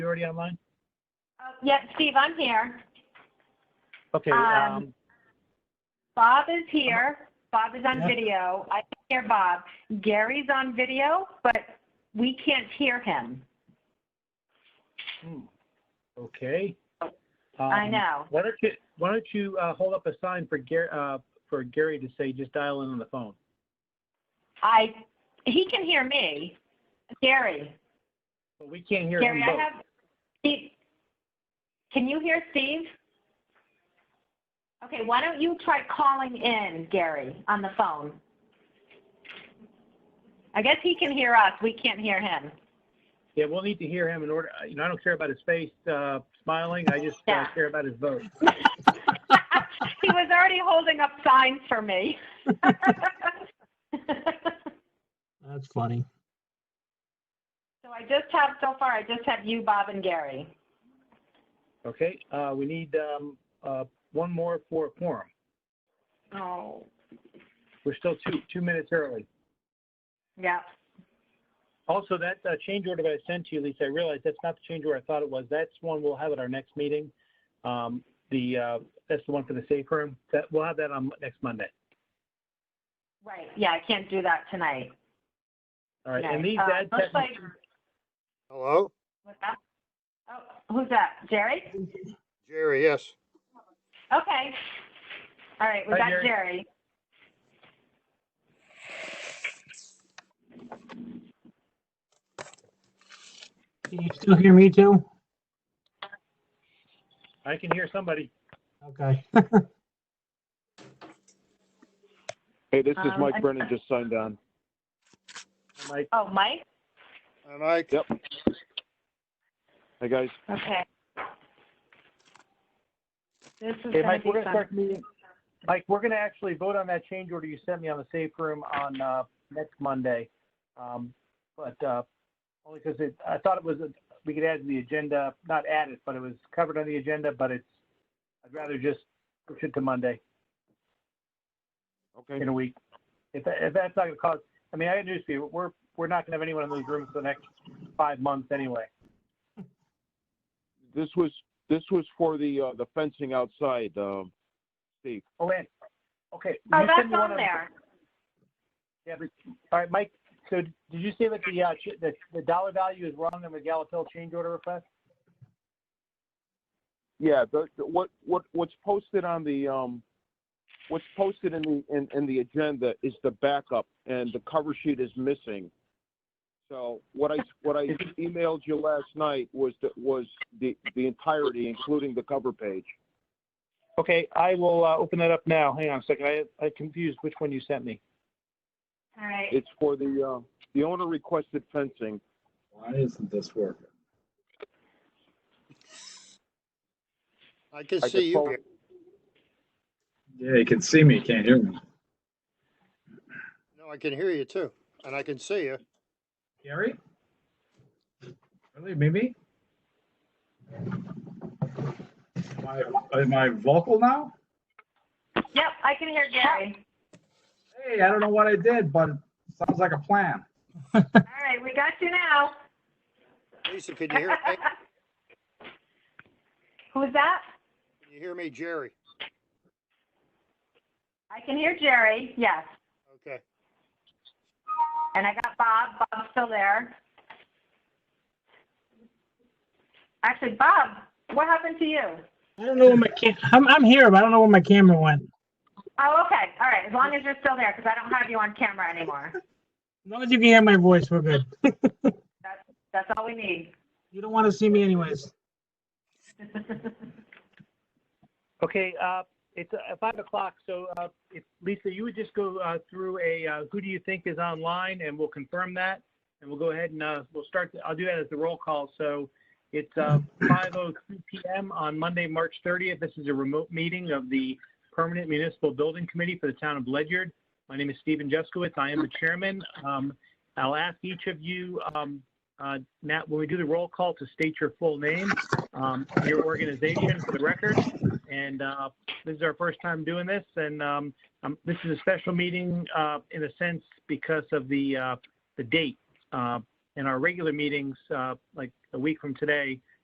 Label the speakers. Speaker 1: you already online?
Speaker 2: Yep, Steve, I'm here.
Speaker 1: Okay,
Speaker 2: Um,
Speaker 1: um,
Speaker 2: Bob is here. Bob is on
Speaker 1: Uh-huh. Yeah.
Speaker 2: video. I can hear Bob. Gary's on video, but we can't hear him.
Speaker 1: hmm, okay.
Speaker 2: I
Speaker 1: Um,
Speaker 2: know.
Speaker 1: Why don't you, why don't you, uh, hold up a sign for Gary, uh, for Gary to say, just dial in on the phone?
Speaker 2: I, he can hear me. Gary,
Speaker 1: But we can't hear him
Speaker 2: Gary, I
Speaker 1: both.
Speaker 2: have, Steve, can you hear Steve? Okay, why don't you try calling in, Gary, on the phone? I guess he can hear us. We can't hear him.
Speaker 1: Yeah, we'll need to hear him in order, uh, you know, I don't care about his face, uh, smiling, I just, uh,
Speaker 2: Yeah.
Speaker 1: care about his vote.
Speaker 2: he was already holding up signs for me. so
Speaker 3: That's funny.
Speaker 2: I just have, so far, I just have you, Bob, and Gary.
Speaker 1: Okay, uh, we need, um, uh, one more for a quorum.
Speaker 2: Oh,
Speaker 1: We're still two, two minutes early.
Speaker 2: yeah.
Speaker 1: Also, that uh, change order that I sent to you, Lisa, I realized that's not the change order I thought it was. That's one we'll have at our next meeting. Um, the, uh, that's the one for the safe room. That, we'll have that on next Monday.
Speaker 2: Right. Yeah, I can't do that tonight.
Speaker 1: All right, and
Speaker 2: Okay.
Speaker 1: these
Speaker 2: Uh,
Speaker 1: ad
Speaker 2: looks
Speaker 1: tech,
Speaker 2: like-
Speaker 4: Hello?
Speaker 2: what's that? Oh, who's that? Jerry?
Speaker 4: Jerry, yes.
Speaker 2: Okay. All right, we
Speaker 1: Hi,
Speaker 2: got
Speaker 1: Jerry.
Speaker 2: Jerry.
Speaker 3: Can you still hear me too?
Speaker 1: I can hear somebody.
Speaker 3: Okay.
Speaker 5: Hey, this is
Speaker 2: Um, I-
Speaker 5: Mike Brennan, just signed on.
Speaker 1: Mike,
Speaker 2: Oh, Mike?
Speaker 4: Hi, Mike.
Speaker 5: Yep. Hey, guys.
Speaker 2: Okay. This is
Speaker 1: hey,
Speaker 2: gonna
Speaker 1: Mike,
Speaker 2: be
Speaker 1: we're gonna
Speaker 2: fun.
Speaker 1: start the meeting. Mike, we're gonna actually vote on that change order you sent me on the safe room on, uh, next Monday. Um, but, uh, only because it, I thought it was, a- we could add to the agenda, not add it, but it was covered on the agenda, but it's, I'd rather just push it to Monday.
Speaker 5: Okay.
Speaker 1: in a week. If, that, if that's not going to cause, I mean, I got news for you. We're we're not going to have anyone in those rooms for the next five months anyway.
Speaker 5: This was, this was for the, uh, the fencing outside, um, Steve.
Speaker 1: Oh, and okay.
Speaker 2: Oh,
Speaker 1: you sent
Speaker 2: that's
Speaker 1: me one
Speaker 2: on there.
Speaker 1: Yeah, but, all right, Mike. So did you say that the, uh, ch- the the dollar value is wrong in the Gallup-Hill change order request?
Speaker 5: Yeah, the, the, what, what, what's posted on the, um, what's posted in the, in, in the agenda is the backup and the cover sheet is missing. So what I, what I emailed you last night was, the was the, the entirety, including the cover page.
Speaker 1: Okay, I will uh, open that up now. Hang on a second. I I confused which one you sent me.
Speaker 2: All right.
Speaker 5: It's for the, uh, the owner requested fencing.
Speaker 6: Why isn't this working?
Speaker 4: I can
Speaker 5: uh, I
Speaker 4: see
Speaker 5: could
Speaker 4: you.
Speaker 5: forward-
Speaker 6: Yeah, you can see me, you can't hear me.
Speaker 4: No, I can hear you too. And I can see you.
Speaker 6: Gary? Really, Mimi? Am I, am I vocal now?
Speaker 2: Yep, I can hear Gary.
Speaker 6: Hey, I don't know what I did, but it sounds like a plan.
Speaker 2: All right, we got you now.
Speaker 4: Lisa, can you hear me? Can
Speaker 2: Who's that?
Speaker 4: you hear me, Jerry?
Speaker 2: I can hear Jerry, yes.
Speaker 4: Okay.
Speaker 2: And I got Bob. Bob's still there. Actually, Bob, what happened to you?
Speaker 3: I don't know where my cam, I'm, I'm here, but I don't know where my camera went.
Speaker 2: Oh, okay. All right. As long as you're still there, because I don't have you on camera anymore.
Speaker 3: As long as you can hear my voice, we're good.
Speaker 2: That's all we need.
Speaker 3: You don't want to see me anyways.
Speaker 1: Okay, uh, it's uh, five o'clock, so, uh, if, Lisa, you would just go, uh, through a, uh, who do you think is online, and we'll confirm that. And we'll go ahead and, uh, we'll start, I'll do that as the roll call, so it's, uh, five oh three PM on Monday, March thirtieth. This is a remote meeting of the Permanent Municipal Building Committee for the Town of Ledyard. My name is Stephen Jeskowitz, I am the chairman. Um, I'll ask each of you, um, uh, now, when we do the roll call, to state your full name, um, your organization for the record. And uh, this is our first time doing this, and um, um, this is a special meeting uh, in a sense because of the uh, the date. Uh, in our regular meetings, uh, like a week from today,